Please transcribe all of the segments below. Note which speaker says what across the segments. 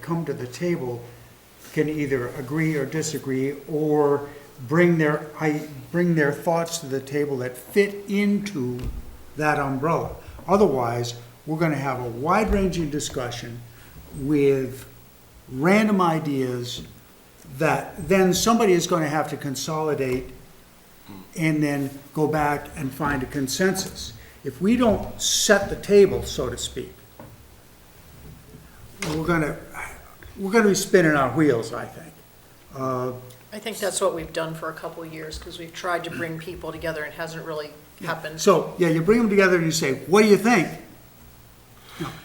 Speaker 1: come to the table can either agree or disagree, or bring their, I, bring their thoughts to the table that fit into that umbrella. Otherwise, we're gonna have a wide-ranging discussion with random ideas that then somebody is gonna have to consolidate and then go back and find a consensus. If we don't set the table, so to speak, we're gonna, we're gonna be spinning our wheels, I think.
Speaker 2: I think that's what we've done for a couple of years, because we've tried to bring people together and it hasn't really happened.
Speaker 1: So, yeah, you bring them together and you say, what do you think?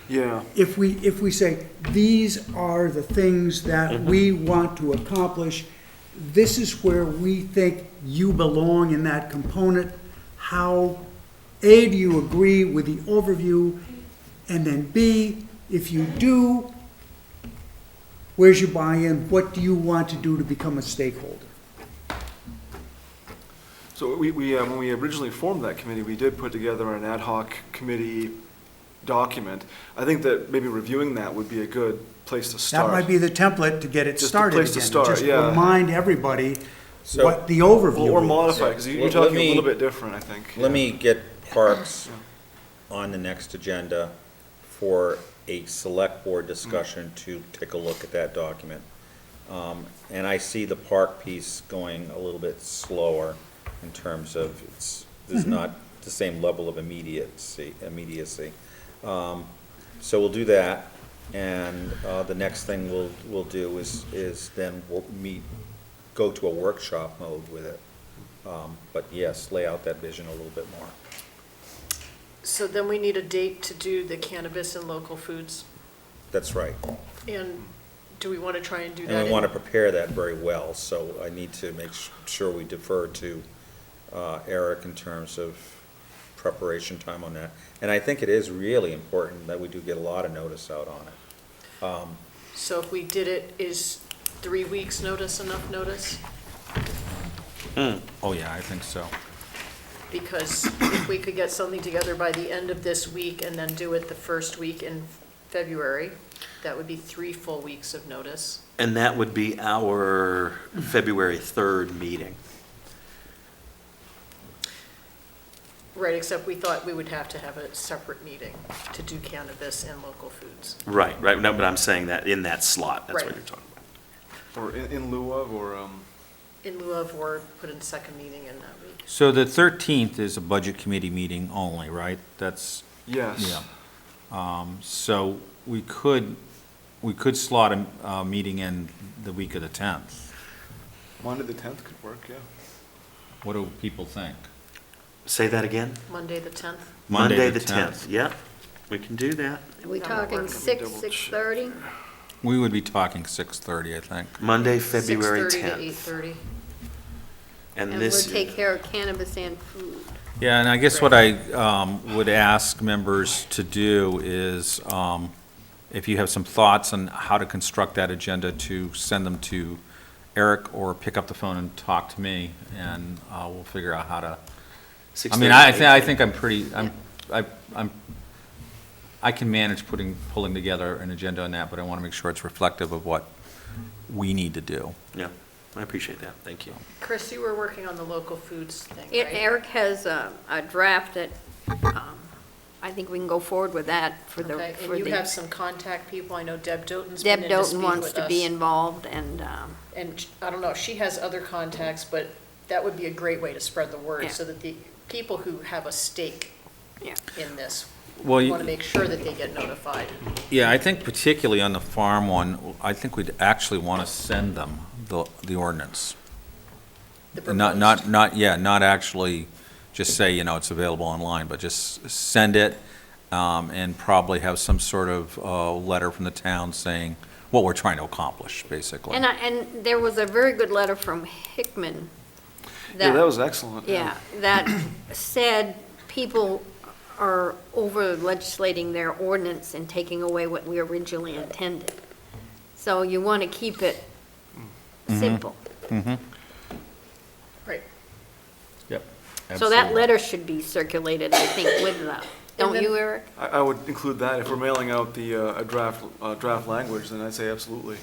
Speaker 3: Yeah,
Speaker 1: If we, if we say, these are the things that we want to accomplish, this is where we think you belong in that component, how, A, do you agree with the overview? And then B, if you do, where's your buy-in? What do you want to do to become a stakeholder?
Speaker 3: so we, we, uh, when we originally formed that committee, we did put together an ad hoc committee document. I think that maybe reviewing that would be a good place to
Speaker 1: That might
Speaker 3: start.
Speaker 1: be the template to get it
Speaker 3: Just a
Speaker 1: started again.
Speaker 3: place to start, yeah.
Speaker 1: Just remind everybody
Speaker 4: So-
Speaker 1: what the overview is.
Speaker 3: Or modify, because you're
Speaker 4: Let- let
Speaker 3: talking a
Speaker 4: me-
Speaker 3: little bit different, I think.
Speaker 4: Let me get parks on the next agenda for a select board discussion to take a look at that document. Um, and I see the park piece going a little bit slower in terms of it's, there's not the same level of immediacy, immediacy. Um, so we'll do that, and, uh, the next thing we'll, we'll do is, is then we'll meet, go to a workshop mode with it. Um, But yes, lay out that vision a little bit more.
Speaker 2: So then we need a date to do the cannabis and local foods.
Speaker 4: That's right.
Speaker 2: And do we want to try and do that?
Speaker 4: And we
Speaker 2: in-
Speaker 4: want to prepare that very well, so I need to make s- sure we defer to uh, Eric in terms of preparation time on that. And I think it is really important that we do get a lot of notice out on it.
Speaker 2: So if we did it, is three weeks' notice enough notice?
Speaker 4: Oh, yeah, I think so.
Speaker 2: Because if we could get something together by the end of this week and then do it the first week in February, that would be three full weeks of notice.
Speaker 5: And that would be our February 3rd meeting.
Speaker 2: Right, except we thought we would have to have a separate meeting to do cannabis and local foods.
Speaker 5: Right, right, no, but I'm saying that in that slot, that's
Speaker 2: Right.
Speaker 5: what you're talking about.
Speaker 3: Or in, in lieu of, or, um,
Speaker 2: In lieu of, or put in second meeting in that week.
Speaker 6: So the 13th is a budget committee meeting only, right? That's,
Speaker 3: yes.
Speaker 6: so we could, we could slot a, a meeting in the week of the 10th.
Speaker 3: Monday the tenth could work, yeah.
Speaker 6: What do people think?
Speaker 5: Say that again?
Speaker 2: Monday, the 10th?
Speaker 5: Monday, the 10th, yep, we can do that.
Speaker 7: Are we
Speaker 2: That'll
Speaker 7: talking
Speaker 2: work.
Speaker 7: six,
Speaker 3: Double check.
Speaker 7: six-thirty?
Speaker 6: We would be talking 6:30, I think.
Speaker 5: Monday, February
Speaker 2: 6:30 to
Speaker 5: 10th.
Speaker 2: 8:30.
Speaker 5: And
Speaker 7: And we'll
Speaker 5: this,
Speaker 7: take care of cannabis and food.
Speaker 6: Yeah, and I guess what I um, would ask members to do is, um, if you have some thoughts on how to construct that agenda, to send them to Eric or pick up the phone and talk to me, and uh, we'll figure out how to I mean, I, I thi- I think I'm pretty, I'm, I, I'm, I can manage putting, pulling together an agenda on that, but I want to make sure it's reflective of what we need to do.
Speaker 5: Yeah, I appreciate that, thank you.
Speaker 2: Chris, you were working on the local foods thing,
Speaker 7: E-
Speaker 2: right?
Speaker 7: Eric has a, a draft that, um, I think we can go forward with that for the,
Speaker 2: Okay,
Speaker 7: for
Speaker 2: and you have
Speaker 7: the.
Speaker 2: some contact people, I know Deb Doten's been
Speaker 7: Deb
Speaker 2: in to
Speaker 7: Doten
Speaker 2: speak
Speaker 7: wants
Speaker 2: with
Speaker 7: to be
Speaker 2: us.
Speaker 7: involved and, um,
Speaker 2: And sh- I don't know, she has other contacts, but that would be a great way to spread the
Speaker 7: Yeah.
Speaker 2: word, so that the people who have a stake
Speaker 7: Yeah.
Speaker 2: in this
Speaker 6: Well,
Speaker 2: want to
Speaker 6: you-
Speaker 2: make sure that they get notified.
Speaker 6: yeah, I think particularly on the farm one, I think we'd actually want to send them the, the ordinance.
Speaker 2: the
Speaker 6: Not,
Speaker 2: proposed.
Speaker 6: not, not, yeah, not actually just say, you know, it's available online, but just send it, um, and probably have some sort of, uh, letter from the town saying what we're trying to accomplish, basically.
Speaker 7: and I, and there was a very good letter from Hickman.
Speaker 3: Yeah, that was excellent.
Speaker 7: Yeah, that said, people are over legislating their ordinance and taking away what we originally intended. So you want to keep it simple.
Speaker 2: Right,
Speaker 6: Yep.
Speaker 7: So that letter should be circulated, I think, with the don't
Speaker 2: then-
Speaker 7: you, Eric?
Speaker 3: I, I would include that, if we're mailing out the, uh, a draft, uh, draft language, then I'd say absolutely.